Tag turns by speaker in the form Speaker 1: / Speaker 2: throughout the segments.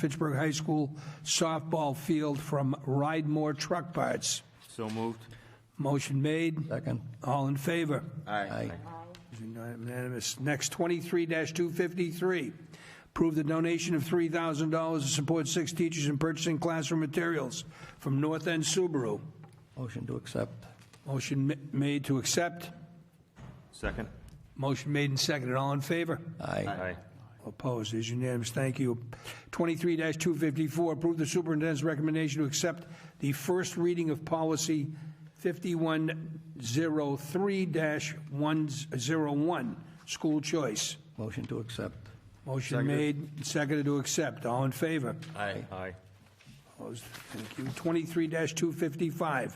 Speaker 1: Fitchburg High School softball field from Ridemore Truck Parts.
Speaker 2: So moved.
Speaker 1: Motion made.
Speaker 3: Second.
Speaker 1: All in favor?
Speaker 3: Aye.
Speaker 1: Unanimous. Next, 23-253, approve the donation of $3,000 to support six teachers in purchasing classroom materials from North End Subaru.
Speaker 3: Motion to accept.
Speaker 1: Motion ma- made to accept.
Speaker 2: Second.
Speaker 1: Motion made and seconded. All in favor?
Speaker 3: Aye.
Speaker 1: Opposed, is unanimous, thank you. 23-254, approve the superintendent's recommendation to accept the first reading of policy 5103-101, school choice.
Speaker 3: Motion to accept.
Speaker 1: Motion made, seconded to accept, all in favor?
Speaker 2: Aye. Aye.
Speaker 1: Opposed, thank you. 23-255,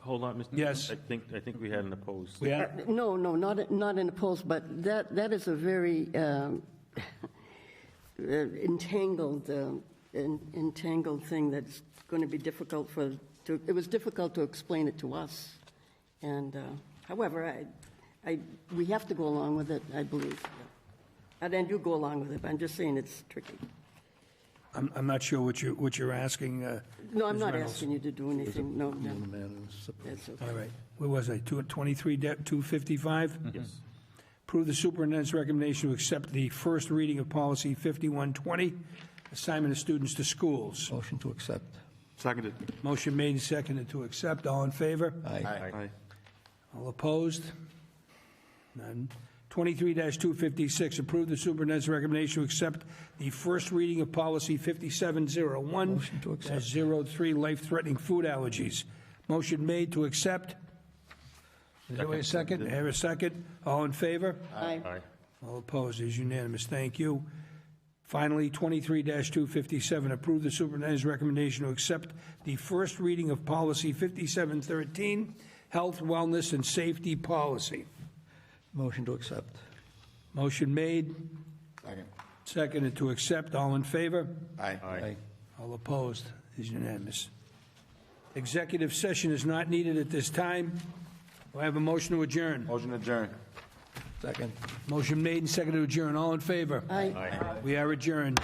Speaker 2: Hold on, Mr.
Speaker 1: Yes.
Speaker 2: I think, I think we had an opposed.
Speaker 1: we
Speaker 4: Uh,
Speaker 1: have,
Speaker 4: No, no, not, not in the polls, but that, that is a very um, uh, entangled, um, en- entangled thing that's going to be difficult for, to- it was difficult to explain it to us. And uh, however, I, I, we have to go along with it, I believe. And I do go along with it, but I'm just saying it's tricky.
Speaker 1: I'm, I'm not sure what you, what you're asking. uh,
Speaker 4: No, I'm
Speaker 1: Ms.
Speaker 4: not
Speaker 1: Reynolds.
Speaker 4: asking you to do anything, no, no,
Speaker 3: Unanimous.
Speaker 4: that's okay.
Speaker 1: All right, where was I, Two- 23-255?
Speaker 2: Yes.
Speaker 1: Approve the superintendent's recommendation to accept the first reading of policy 5120, assignment of students to schools.
Speaker 3: Motion to accept.
Speaker 2: Seconded.
Speaker 1: Motion made and seconded to accept. All in favor?
Speaker 3: Aye.
Speaker 2: Aye.
Speaker 1: All opposed? None. 23-256, approve the superintendent's recommendation to accept the first reading of policy 5701,
Speaker 3: Motion to accept.
Speaker 1: dash 03, life-threatening food allergies. Motion made to accept. Is there a second? Have a second? All in favor?
Speaker 4: Aye.
Speaker 2: Aye.
Speaker 1: All opposed, is unanimous, thank you. Finally, 23-257, approve the superintendent's recommendation to accept the first reading of policy 5713, health, wellness, and safety policy.
Speaker 3: Motion to accept.
Speaker 1: Motion made,
Speaker 3: Second.
Speaker 1: seconded to accept, all in favor?
Speaker 3: Aye.
Speaker 1: All opposed, is unanimous. Executive session is not needed at this time. Do I have a motion to adjourn?
Speaker 2: Motion adjourned.
Speaker 3: Second.
Speaker 1: Motion made and seconded to adjourn, all in favor?
Speaker 4: Aye.
Speaker 1: We are adjourned.